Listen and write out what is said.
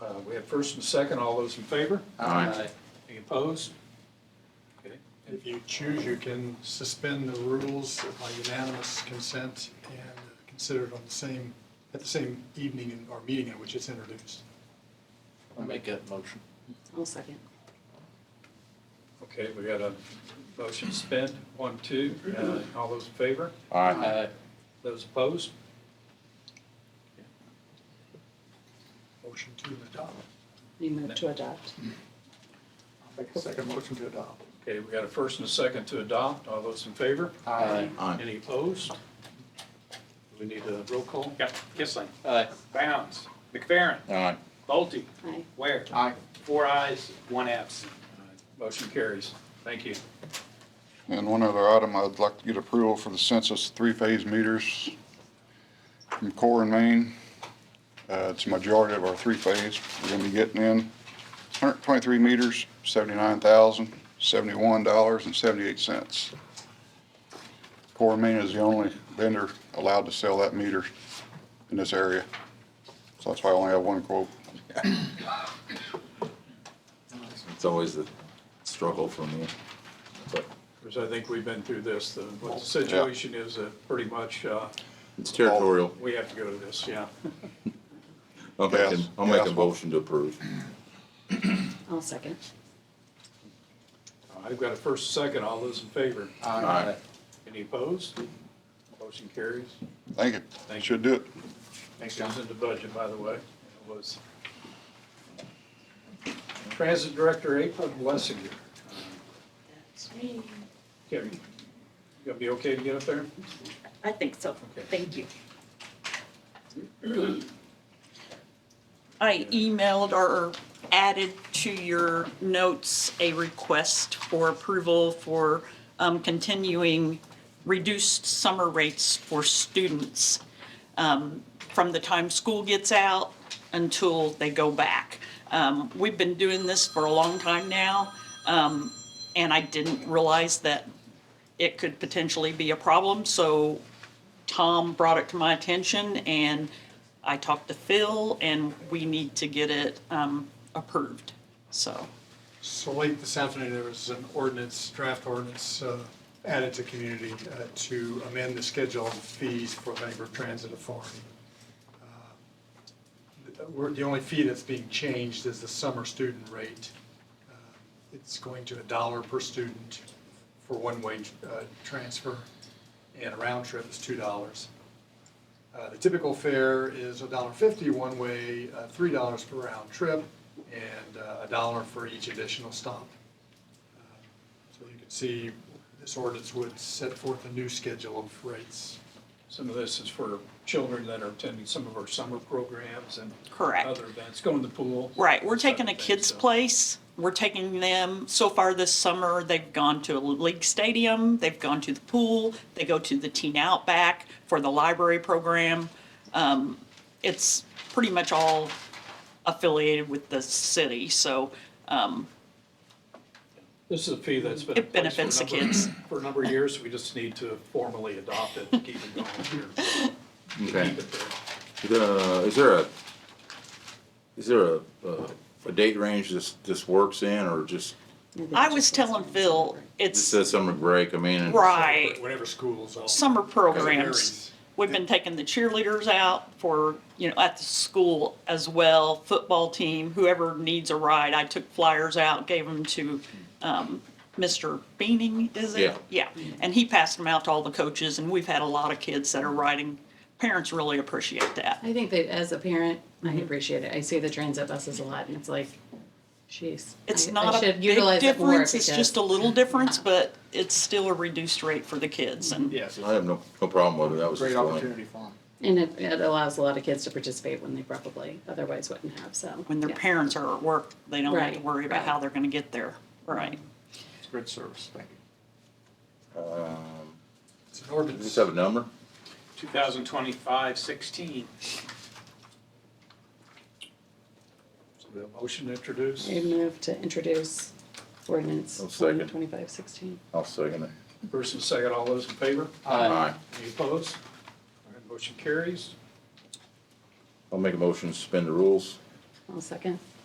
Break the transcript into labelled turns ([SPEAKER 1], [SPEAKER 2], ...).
[SPEAKER 1] got Uh, first and second, all those in favor?
[SPEAKER 2] Aye.
[SPEAKER 1] Any opposed? Okay.
[SPEAKER 3] If you choose, you can suspend the rules by unanimous consent and consider it on the same, at the same evening in- or meeting at which it's introduced.
[SPEAKER 2] I'll make that motion.
[SPEAKER 4] I'll second.
[SPEAKER 1] Okay, we got a motion to suspend, one, two, Uh, all those in favor?
[SPEAKER 2] Aye.
[SPEAKER 1] Those opposed?
[SPEAKER 3] Motion to adopt.
[SPEAKER 4] You move to adopt.
[SPEAKER 3] Make a second motion to adopt.
[SPEAKER 1] Okay, we got a first and a second to adopt, all those in favor?
[SPEAKER 2] Aye.
[SPEAKER 5] Aye.
[SPEAKER 1] Any opposed? We need a roll call?
[SPEAKER 6] Got Kissling,
[SPEAKER 2] Aye.
[SPEAKER 6] Bounds, McFerrin,
[SPEAKER 5] Aye.
[SPEAKER 6] Bolte,
[SPEAKER 4] Aye.
[SPEAKER 6] Ware.
[SPEAKER 5] Aye.
[SPEAKER 6] Four ayes, one absent.
[SPEAKER 1] Motion carries. Thank you.
[SPEAKER 7] And one other item, I'd like to get approval for the census three-phase meters from Core and Main. Uh, It's a majority of our three-phase. We're going to be getting in 123 meters, $79,071.78. Core and Main is the only vendor allowed to sell that meter in this area. So that's why I only have one quote.
[SPEAKER 5] It's always the struggle for me, but
[SPEAKER 1] Because I think we've been through this, the what the situation is that pretty much uh,
[SPEAKER 5] it's territorial.
[SPEAKER 1] we have to go to this, yeah.
[SPEAKER 5] I'll make,
[SPEAKER 7] Yes,
[SPEAKER 5] a- I'll make a
[SPEAKER 7] yes.
[SPEAKER 5] motion to approve.
[SPEAKER 4] I'll second.
[SPEAKER 1] I've got a first and second, all those in favor?
[SPEAKER 5] Aye.
[SPEAKER 1] Any opposed? Motion carries.
[SPEAKER 7] Thank you.
[SPEAKER 1] Thank you.
[SPEAKER 7] Should do it.
[SPEAKER 1] Thanks, John. It was in the budget, by the way. It was. Transit Director April Blessinger.
[SPEAKER 4] That's me.
[SPEAKER 1] Kevin, you gonna be okay to get up there?
[SPEAKER 4] I think so.
[SPEAKER 1] Okay.
[SPEAKER 4] Thank you.
[SPEAKER 8] I emailed or added to your notes a request for approval for um, continuing reduced summer rates for students um, from the time school gets out until they go back. Um, We've been doing this for a long time now, um, and I didn't realize that it could potentially be a problem, so Tom brought it to my attention and I talked to Phil and we need to get it um, approved. So,
[SPEAKER 3] So late this afternoon, there was an ordinance, draft ordinance uh, added to community uh, to amend the schedule of fees for Bangor Transit Authority. Uh, we're- The only fee that's being changed is the summer student rate. Uh, It's going to a dollar per student for one-way uh, transfer, and a round trip is two dollars. Uh, The typical fare is a dollar fifty one-way, uh, three dollars per round trip, and uh, a dollar for each additional stop. Uh, So you can see, this ordinance would set forth a new schedule of rates.
[SPEAKER 1] Some of this is for children that are attending some of our summer programs and
[SPEAKER 8] Correct.
[SPEAKER 1] other events, go in the pool.
[SPEAKER 8] right, we're
[SPEAKER 1] this type
[SPEAKER 8] taking a
[SPEAKER 1] of thing,
[SPEAKER 8] kids'
[SPEAKER 1] so.
[SPEAKER 8] place. We're taking them, so far this summer, they've gone to a league stadium, they've gone to the pool, they go to the teen outback for the library program. Um, It's pretty much all affiliated with the city, so um,
[SPEAKER 1] This is a fee that's been.
[SPEAKER 8] It
[SPEAKER 1] in place for a
[SPEAKER 8] benefits the
[SPEAKER 1] number-
[SPEAKER 8] kids.
[SPEAKER 1] For a number of years, we just need to formally adopt it, to keep it going here.
[SPEAKER 5] Okay.
[SPEAKER 1] Keep it there.
[SPEAKER 5] The, is there a, is there a, a, a date range this, this works in or just,
[SPEAKER 8] I was telling Phil,
[SPEAKER 5] this
[SPEAKER 8] it's,
[SPEAKER 5] says summer break, I mean? and-
[SPEAKER 8] right,
[SPEAKER 3] Whenever schools all.
[SPEAKER 8] summer
[SPEAKER 3] Varies.
[SPEAKER 8] programs. We've been taking the cheerleaders out for, you know, at the school as well, football team, whoever needs a ride. I took flyers out, gave them to, um, Mr. Beaning, is it? Yeah, and he passed them out to all the coaches, and we've had a lot of kids that are riding. Parents really appreciate that.
[SPEAKER 4] I think that as a parent,
[SPEAKER 8] Mm-hmm.
[SPEAKER 4] I appreciate it. I see the transit buses a lot and it's like, jeez.
[SPEAKER 8] It's
[SPEAKER 4] I- I
[SPEAKER 8] not a
[SPEAKER 4] should
[SPEAKER 8] big
[SPEAKER 4] utilize it more
[SPEAKER 8] difference, it's
[SPEAKER 4] because-
[SPEAKER 8] just a little difference, but it's still a reduced rate for the kids, and
[SPEAKER 2] Yes.
[SPEAKER 5] I have no, no problem with it, that was just one.
[SPEAKER 2] for them.
[SPEAKER 4] And it, it allows a lot of kids to participate when they probably otherwise wouldn't have, so.
[SPEAKER 8] when their
[SPEAKER 4] yeah.
[SPEAKER 8] parents are at work, they don't have to
[SPEAKER 4] Right,
[SPEAKER 8] worry about how
[SPEAKER 4] right.
[SPEAKER 8] they're gonna get there, right?
[SPEAKER 2] It's good service, thank you.
[SPEAKER 5] Um,
[SPEAKER 3] It's an
[SPEAKER 5] Does
[SPEAKER 3] ordinance.
[SPEAKER 5] this have a number?
[SPEAKER 6] 2025-16.
[SPEAKER 1] So we have a motion to introduce.
[SPEAKER 4] I move to introduce ordinance
[SPEAKER 5] I'll second.
[SPEAKER 4] 2516.
[SPEAKER 5] I'll second it.
[SPEAKER 1] First and second, all those in favor?
[SPEAKER 5] Aye.
[SPEAKER 1] Any opposed? All right, motion carries.
[SPEAKER 5] I'll make a motion to suspend the rules.
[SPEAKER 4] I'll second.